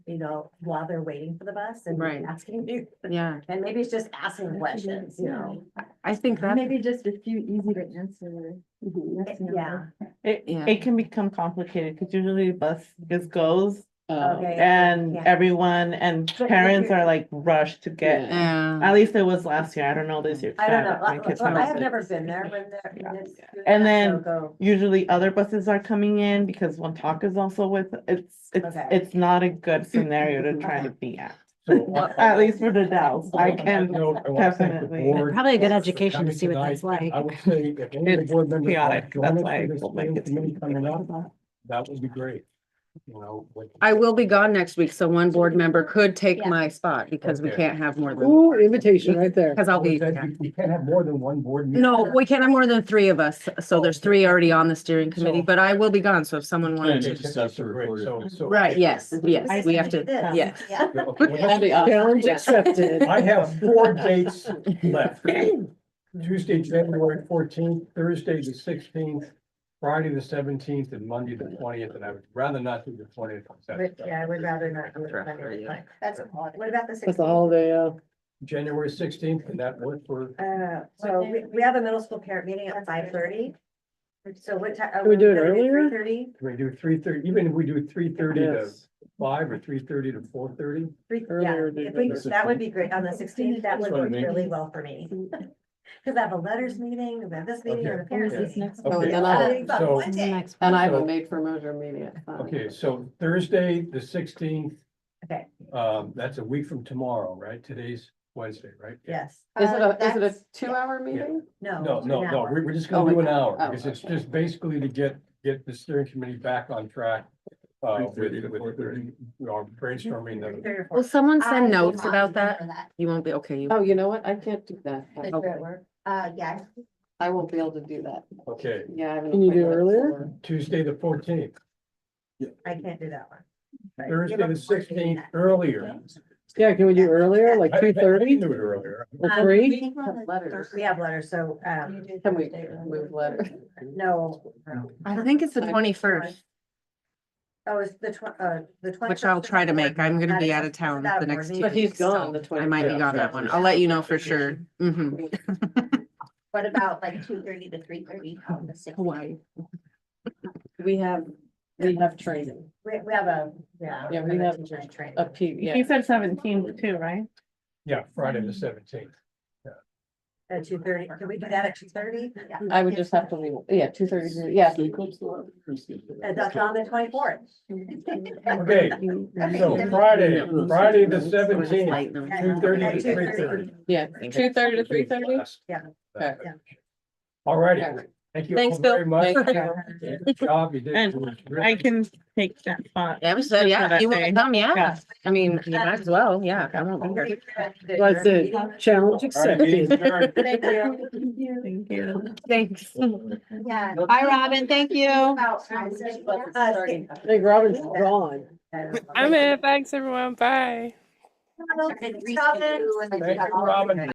you know, while they're waiting for the bus and Right. asking you, Yeah, and maybe it's just asking questions, you know? I think that, Maybe just a few easy to answer. yes, no. Mm-hmm. Yeah, It, Yeah. it can become complicated because usually the bus just goes Uh, Oh, okay. and yeah. everyone and But if parents you're- are like rushed to get. yeah, At least it was last year. I don't know this year. 'cause I don't haven't- my know, kids I- I haven't have been. never been there when they're. when it's doing And that, so then go- Usually other buses are coming in because one talk is also with, it's, it's, Okay. it's not a good scenario to try to be at. So, At least for the Dells, I you can, know, I wanna thank the definitely. board Probably a good for education to coming see what that's tonight. like. I would say if any of the It's board members chaotic. want to join That's us why I for this told my planning kids to committee be coming prepared up, that would be great. You know, like- I will be gone next week, so one board member could take Yeah. my spot because we Okay. can't have more than, Ooh, invitation right there. because I'll Always be. said You you can't have more than one board. meeting. No, we can't have more than three of us, so there's three already on the steering committee, So- but I will be gone, so if someone wanted Okay, to. so- That's the great. recorded. So- so- Right, yes, I yes, we have see. to, This, yes. Yeah. Okay, well, that's- Challenge accepted. I have four dates left. Tuesday, January fourteenth, Thursday, the sixteenth, Friday, the seventeenth, and Monday, the twentieth, and I would rather not do the twentieth. But, yeah, I would rather not. do it Sure, Monday, yeah. but That's, what about the That's a sixteenth? holiday, uh, January sixteenth, and that work for, Uh, so we, we have a middle school parent meeting at five thirty. So what time? Can we do it earlier? Three thirty, can we do three thirty, even if we do three thirty to yes. five or three thirty to four thirty? three, yeah, Earlier would be if we- better. that would be great, on the sixteenth, that would That's what I work mean. really well for me. Cause I have a letters meeting, we have this meeting, and a Or is parent this meeting. Oh, next? one? Okay. then Uh, I- it's on So- one day. And I have a So- made for merger meeting at five. Okay, so Thursday, the sixteenth. Okay. Um, that's a week from tomorrow, right? Today's Wednesday, right? Yes, Uh, two-hour meeting? no. No, it's no, an no, hour. we're, we're just Oh, gonna do an an hour, hour. because it's Okay. just basically to get, get the steering committee back on track. Uh, with, 3:30 to with, 4:30. we are brainstorming the, Three or four. Will someone I will send notes not be about there that? for that. You won't be, okay, you. Oh, you know what? I can't do that. I- Okay. Uh, yeah, I won't be able to do that. okay, Yeah. I have an Can you do appointment earlier? for- Tuesday, the fourteenth, I can't do that one. Thursday, the sixteenth, earlier. Yeah, can we do earlier, like I- I- I two can thirty Do it earlier. or Um, three? we were on the Letters. We have letters, so, um, Can we move letters? no, no. I think it's the twenty-first, Oh, it's the tw- uh, the twenty. which I'll try to make. I'm gonna be out of town the next two But he's weeks, gone the so I twenty. might be Yeah, gone that one. I'll let you know for sure. hmm what about like two thirty to three thirty on the sixth? Hawaii. We have, we have training, We, we have a, yeah. Yeah, we have teacher's training. a P, yeah. He said seventeen too, right? Yeah, Friday, the seventeenth. At two thirty, can we do that at two thirty? I would just have to leave, yeah, two thirty, yeah. And that's on the twenty-fourth. Okay, so Friday, Friday, the seventeenth, Light them. two thirty to three thirty. Yeah, two thirty to three thirty? Yeah. Okay. All righty, thank you all Thanks, Bill. very much. Thank you. Good job, you did. And I can take that spot. Yeah, we said, Good for yeah, that you wanna day. come, yeah. Yeah. I mean, you might as well, yeah, I won't be here. That's it. Challenge All right, meeting's accepted. adjourned. Thank you. Thank you. Thanks. Yeah. Hi, Robin, thank you. About time, so you want- Uh, Hey, Robin's gone. I'm in. Thanks, everyone. Bye. Stop it. Thank you, Robin.